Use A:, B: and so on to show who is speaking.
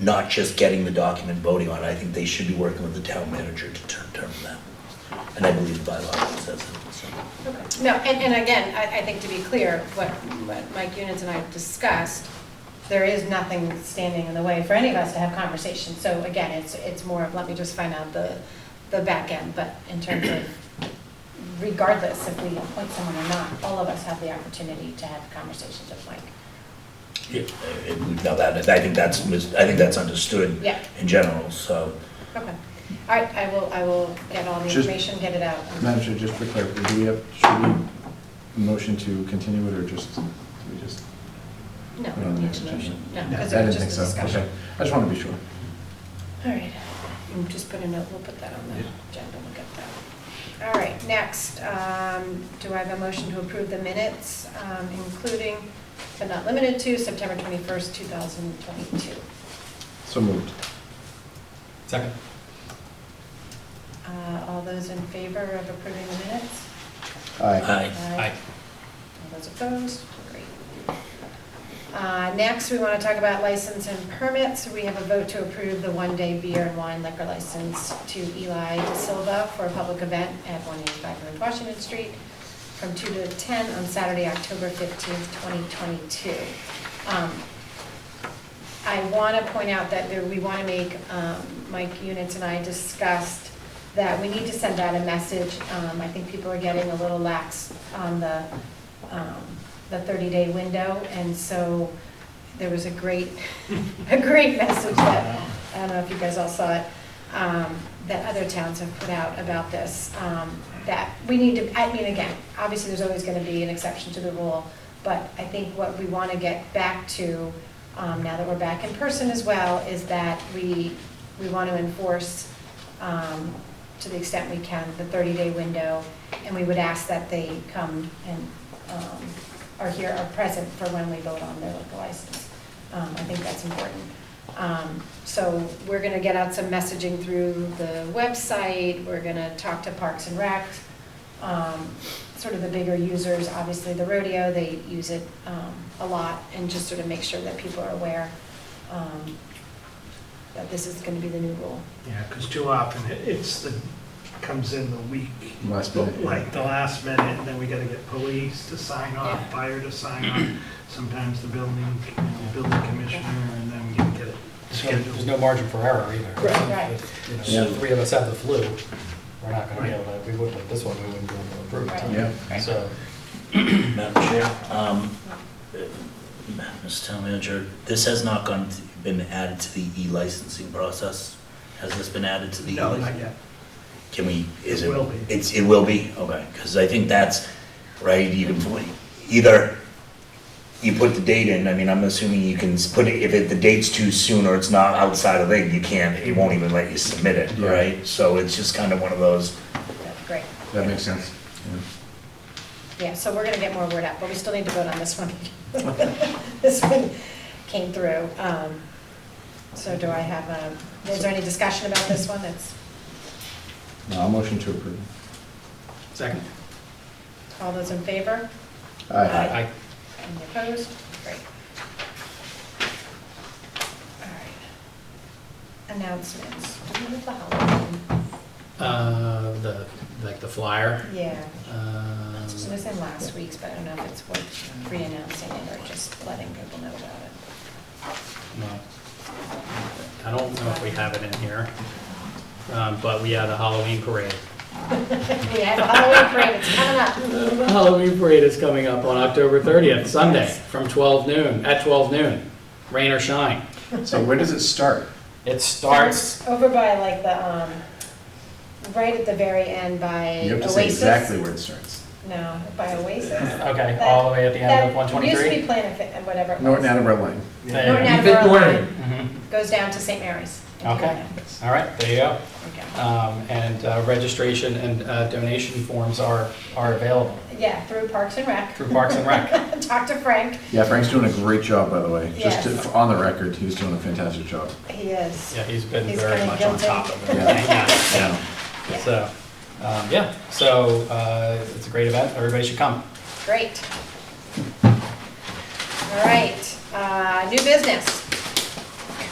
A: not just getting the document, voting on it. I think they should be working with the town manager to ter- determine that. And I believe the bylaw says it, so.
B: Okay. No, and, and again, I, I think to be clear, what, what Mike Units and I discussed, there is nothing standing in the way for any of us to have conversations. So again, it's, it's more of, let me just find out the, the back end, but in terms of regardless if we appoint someone or not, all of us have the opportunity to have conversations with Mike.
A: Yeah, and we've now that, I think that's, mis- I think that's understood
B: Yeah.
A: in general, so.
B: Okay. All right, I will, I will get all the
C: Just-
B: information, get it out.
C: Madam Chair, just for clarity, do we have, should we motion to continue it, or just, do we just?
B: No,
C: put it
B: we
C: on
B: don't
C: the
B: need
C: next
B: to
C: agenda?
B: motion, no,
C: I
B: because it
C: didn't
B: was
C: think
B: just
C: so.
B: a
C: Okay,
B: discussion.
C: I just want to be sure.
B: All right, Um, just put a note, we'll put that on the
C: Yeah.
B: agenda, we'll get that. All right, next, um, do I have a motion to approve the minutes, um, including but not limited to September 21st, 2022?
C: So moved.
D: Second.
B: Uh, All those in favor of approving the minutes?
C: Aye.
A: Aye.
D: Aye.
B: All those opposed? Great. Uh, Next, we want to talk about license and permits. We have a vote to approve the one-day beer and wine liquor license to Eli De Silva for a public event at 185 North Washington Street from 2 to 10 on Saturday, October 15th, 2022. Um, I want to point out that there, we want to make, um, Mike Units and I discussed that we need to send out a message. Um, I think people are getting a little lax on the, um, the 30-day window. And so there was a great, a great message that, I don't know if you guys all saw it, um, that other towns have put out about this. um, That we need to, I mean, again, obviously, there's always going to be an exception to the rule. But I think what we want to get back to um, now that we're back in person as well, is that we, we want to enforce, um, to the extent we can, the 30-day window, and we would ask that they come and um, are here, are present for when we vote on their liquor license. Um, I think that's important. Um, So we're going to get out some messaging through the website, we're going to talk to Parks and Rec, um, sort of the bigger users, obviously the rodeo, they use it um, a lot, and just sort of make sure that people are aware um, that this is going to be the new rule.
E: Yeah, because too often it- it's the, comes in the week,
C: Last
D: Oh.
C: minute.
E: like the last minute, and then we gotta get police to sign off,
B: Yeah.
E: fire to sign off, sometimes the building, building commissioner, and then we can get it
D: There's
E: scheduled.
D: no margin for error either.
B: Right, right.
D: If, you know,
C: Yeah.
D: Three of us have the flu, we're not gonna be able to, we wouldn't, like this one, we wouldn't be able to approve
B: Right.
D: it.
C: Yeah.
D: So,
A: Madam Chair, um, uh, Mr. Town Manager, this has not gone, to- been added to the e-licensing process? Has this been added to the
E: No,
A: e-licensing?
E: not yet.
A: Can we, is it?
E: It will be.
A: It's, it will be, okay, because I think that's, right, you can, put- either you put the date in, I mean, I'm assuming you can s- put it, if it, the date's too soon or it's not outside of it, you can't, it won't even let you submit it,
C: Yeah.
A: right? So it's just kind of one of those,
B: That's Great.
C: That makes sense.
B: Yeah, so we're going to get more word out, but we still need to vote on this one. This one came through. Um, So do I have a, is there any discussion about this one? It's,
C: Yeah. Uh, motion to approve.
D: second.
B: all those in favor?
C: Aye.
D: Aye.
B: Any opposed? Great. All right. Announcements. Do we have the Halloween?
D: Uh, the, like the flyer.
B: Yeah.
D: um,
B: It was in last week's, but I don't know if it's worth re-announcing it or just letting people know about it.
D: no. I don't know if we have it in here, um, but we had a Halloween parade.
B: We have a Halloween parade, it's coming up.
D: Halloween parade is coming up on October 30th, Sunday, from 12 noon, at 12 noon, rain or shine.
C: So where does it start?
D: It starts,
B: Over by like the, um, right at the very end by
C: You have to say exactly
B: Oasis.
C: where it starts.
B: No, by Oasis.
D: okay, all the way at the end of
B: That used to be
D: 123?
B: Planet Fitness, whatever it was.
C: Norton Attleboro Lane.
D: Yeah.
B: Norton
D: You
B: Attleboro
D: morning.
B: Line
D: Mhm.
B: Goes down to St. Mary's.
D: Okay, all right, there you go.
B: Okay.
D: Um, And uh, registration and uh, donation forms are, are available
B: Yeah, through Parks and Rec.
D: through Parks and Rec.
B: Talk to Frank.
C: Yeah, Frank's doing a great job, by the way. Just
B: Yes.
C: to- on the record, he's doing a fantastic job.
B: He is.
D: Yeah, he's been
B: He's
D: very
B: kinda
D: much on
B: guilty.
D: top of it.
C: Yeah.
D: Yeah,
B: Yeah.
D: yeah. So, um, yeah, so uh, it's a great event, everybody should come.
B: Great. All right, uh, new business.